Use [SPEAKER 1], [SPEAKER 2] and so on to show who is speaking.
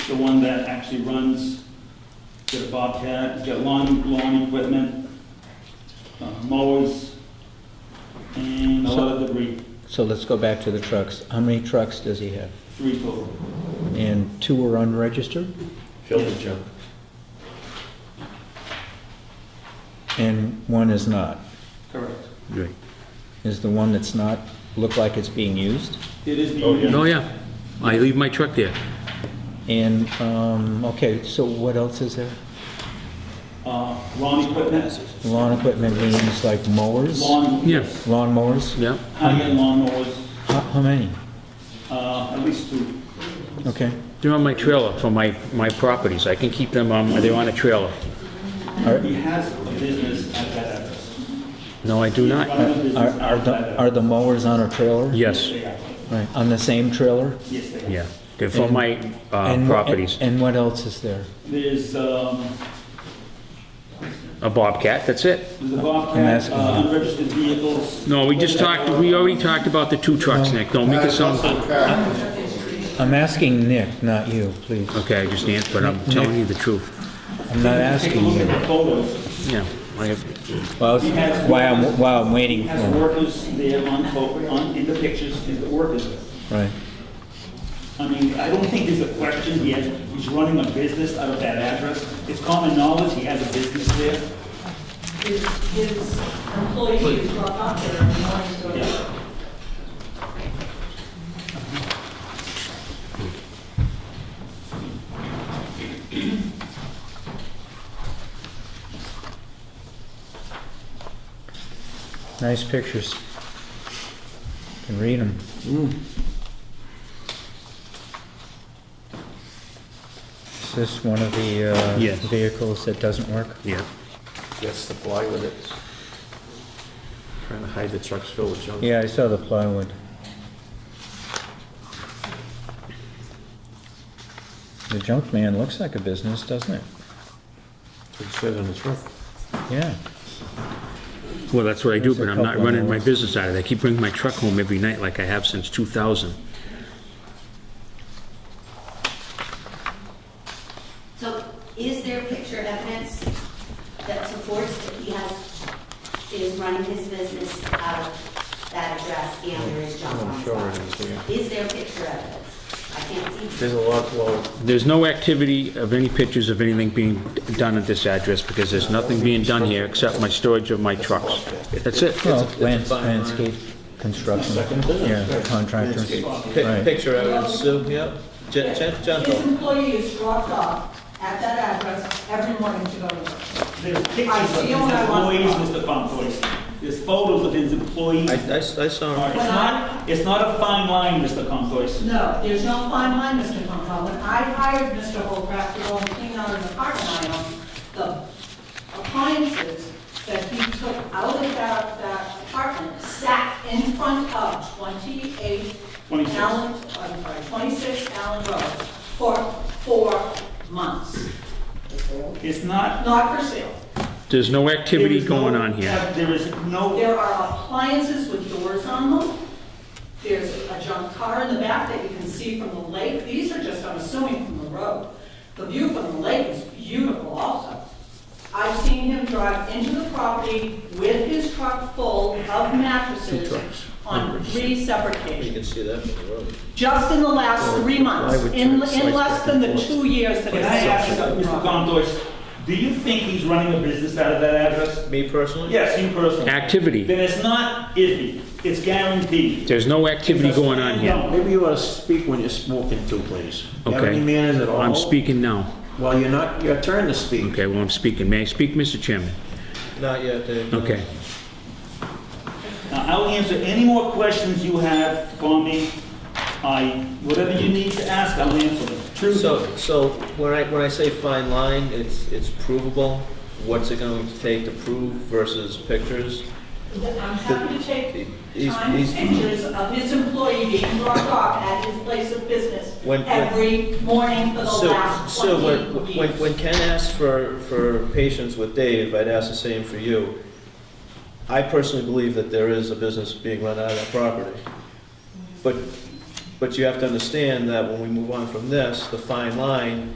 [SPEAKER 1] the one that actually runs, he's got a Bobcat, he's got lawn, lawn equipment, uh, mowers, and a lot of debris,
[SPEAKER 2] So let's go back to the trucks. How many trucks does he have?
[SPEAKER 1] three total.
[SPEAKER 2] And two are unregistered?
[SPEAKER 3] Filter junk.
[SPEAKER 2] And one is not.
[SPEAKER 1] Correct.
[SPEAKER 4] Great.
[SPEAKER 2] Is the one that's not look like it's being used?
[SPEAKER 1] It is being
[SPEAKER 3] Oh, yeah.
[SPEAKER 1] used.
[SPEAKER 4] Oh, yeah. I leave my truck there.
[SPEAKER 2] And, um, okay, so what else is there?
[SPEAKER 1] Uh, Lawn equipment,
[SPEAKER 2] Lawn equipment means like mowers?
[SPEAKER 1] lawn,
[SPEAKER 4] Yeah.
[SPEAKER 1] yes,
[SPEAKER 2] Lawn mowers?
[SPEAKER 4] Yeah.
[SPEAKER 1] high-end lawn mowers,
[SPEAKER 2] How, how many?
[SPEAKER 1] uh, at least two.
[SPEAKER 2] Okay.
[SPEAKER 4] They're on my trailer for my, my properties. I can keep them on, they're on a trailer.
[SPEAKER 2] Are,
[SPEAKER 1] He has a business at that address.
[SPEAKER 4] No, I do not.
[SPEAKER 1] Running a business
[SPEAKER 2] are,
[SPEAKER 1] out
[SPEAKER 2] are
[SPEAKER 1] of that
[SPEAKER 2] the, are
[SPEAKER 1] address.
[SPEAKER 2] the mowers on a trailer?
[SPEAKER 4] Yes,
[SPEAKER 1] They are.
[SPEAKER 2] Right, on the same trailer?
[SPEAKER 1] Yes, they are.
[SPEAKER 4] yeah. They're for
[SPEAKER 2] And-
[SPEAKER 4] my uh,
[SPEAKER 2] And wha-
[SPEAKER 4] properties.
[SPEAKER 2] And what else is there?
[SPEAKER 1] There's, um,
[SPEAKER 4] A Bobcat, that's it.
[SPEAKER 1] there's a
[SPEAKER 2] I'm
[SPEAKER 1] Bobcat,
[SPEAKER 2] asking
[SPEAKER 1] uh,
[SPEAKER 2] you.
[SPEAKER 1] unregistered vehicles.
[SPEAKER 4] No, we just talked, we already talked about the two trucks, Nick. Don't make it sound,
[SPEAKER 2] I'm asking Nick, not you, please.
[SPEAKER 4] okay, I just answered, but I'm telling you the truth.
[SPEAKER 2] I'm not
[SPEAKER 1] Take a
[SPEAKER 2] asking
[SPEAKER 1] look
[SPEAKER 2] you.
[SPEAKER 1] at the photos.
[SPEAKER 4] Yeah, I have,
[SPEAKER 2] Well, it's- while I'm, while I'm
[SPEAKER 1] He
[SPEAKER 2] waiting for
[SPEAKER 4] Oh.
[SPEAKER 1] has
[SPEAKER 2] him,
[SPEAKER 1] workers there on, pho- on, in the pictures, is the workers there.
[SPEAKER 2] right.
[SPEAKER 1] I mean, I don't think there's a question, he has, he's running a business out of that address. It's common knowledge, he has a business there.
[SPEAKER 5] His, his employees who are up there and wanting to
[SPEAKER 1] Yeah.
[SPEAKER 2] Nice pictures. Can read them. Is this one of the uh,
[SPEAKER 4] Yes.
[SPEAKER 2] vehicles that doesn't work?
[SPEAKER 4] yeah.
[SPEAKER 3] That's the plywood that's trying to hide the truck's filled with junk.
[SPEAKER 2] Yeah, I saw the plywood. The junk man looks like a business, doesn't it?
[SPEAKER 3] That's what It says on the truck.
[SPEAKER 2] Yeah.
[SPEAKER 4] Well, that's what I do,
[SPEAKER 2] There's
[SPEAKER 4] but
[SPEAKER 2] a
[SPEAKER 4] I'm not
[SPEAKER 2] couple
[SPEAKER 4] running my
[SPEAKER 2] hours.
[SPEAKER 4] business out of it. I keep bringing my truck home every night like I have since 2000.
[SPEAKER 6] So is there picture evidence that supports that he has, is running his business out of that address and there is junk on
[SPEAKER 3] I'm
[SPEAKER 6] the
[SPEAKER 3] sure it
[SPEAKER 6] property?
[SPEAKER 3] is, yeah.
[SPEAKER 6] Is there picture evidence? I can't see.
[SPEAKER 3] There's a lot, well,
[SPEAKER 4] There's no activity of any pictures of anything being done at this address because there's nothing being done here except my storage of my trucks. That's it.
[SPEAKER 2] Well, lands- landscape construction, yeah, contractors.
[SPEAKER 7] Pic-
[SPEAKER 2] Right.
[SPEAKER 7] Picture evidence, Sue, yep. Gen- gen-
[SPEAKER 5] His
[SPEAKER 7] Gentle.
[SPEAKER 5] employee is dropped off at that address every morning to go to work.
[SPEAKER 1] There's
[SPEAKER 5] I
[SPEAKER 1] pictures of
[SPEAKER 5] see
[SPEAKER 1] his
[SPEAKER 5] what I want.
[SPEAKER 1] employees, Mr. Pompoy. There's photos of his employees.
[SPEAKER 7] I,
[SPEAKER 1] All
[SPEAKER 7] I, I saw
[SPEAKER 1] right,
[SPEAKER 7] him.
[SPEAKER 1] It's not, it's not a fine line, Mr. Pompoy.
[SPEAKER 5] No, there's no fine line, Mr. Compound. When I hired Mr. Holcraft to go and clean out in the parking lot, the appliances that he took out of that, that apartment sat in front of 28
[SPEAKER 1] 26.
[SPEAKER 5] Allen, I'm sorry, 26 Allen Road for four months.
[SPEAKER 1] It's not.
[SPEAKER 5] Not for sale.
[SPEAKER 4] There's no
[SPEAKER 1] there
[SPEAKER 4] activity
[SPEAKER 1] is no-
[SPEAKER 4] going on here.
[SPEAKER 1] There is no,
[SPEAKER 5] There are appliances with doors on them. There's a junk car in the back that you can see from the lake. These are just, I'm assuming, from the road. The view from the lake is beautiful also. I've seen him drive into the property with his truck full of mattresses on three separate
[SPEAKER 7] You
[SPEAKER 5] occasions.
[SPEAKER 7] can see that from the road.
[SPEAKER 5] Just in the last three months, in, in less than the two years that
[SPEAKER 1] can
[SPEAKER 5] it's
[SPEAKER 1] I ask you,
[SPEAKER 5] been
[SPEAKER 1] Mr.
[SPEAKER 5] on.
[SPEAKER 1] Pompoy, do you think he's running a business out of that address?
[SPEAKER 7] Me personally?
[SPEAKER 1] Yes, you personally.
[SPEAKER 4] Activity.
[SPEAKER 1] Then it's not iffy, it's guaranteed.
[SPEAKER 4] There's no activity going on here.
[SPEAKER 1] No,
[SPEAKER 3] Maybe you ought to speak when you're smoking too, please. You have
[SPEAKER 4] Okay.
[SPEAKER 3] any manners at all?
[SPEAKER 4] I'm speaking now.
[SPEAKER 3] Well, you're not, your turn to speak.
[SPEAKER 4] Okay, well, I'm speaking. May I speak, Mr. Chairman?
[SPEAKER 7] Not yet, Dave. no.
[SPEAKER 4] Okay.
[SPEAKER 1] Now, I'll answer any more questions you have for me. I, whatever you need to ask, I'll answer them. Truthfully.
[SPEAKER 7] So, so when I, when I say fine line, it's, it's provable. What's it going to take to prove versus pictures?
[SPEAKER 5] I'm happy to take
[SPEAKER 7] He's-
[SPEAKER 5] timed
[SPEAKER 7] he's-
[SPEAKER 5] pictures of his employee being dropped off at his place of business
[SPEAKER 7] When- when-
[SPEAKER 5] every morning for the
[SPEAKER 7] So,
[SPEAKER 5] last
[SPEAKER 7] so when,
[SPEAKER 5] 28
[SPEAKER 7] when, when
[SPEAKER 5] years.
[SPEAKER 7] Ken asked for, for patience with Dave, I'd ask the same for you. I personally believe that there is a business being run out of that property. But But you have to understand that when we move on from this, the fine line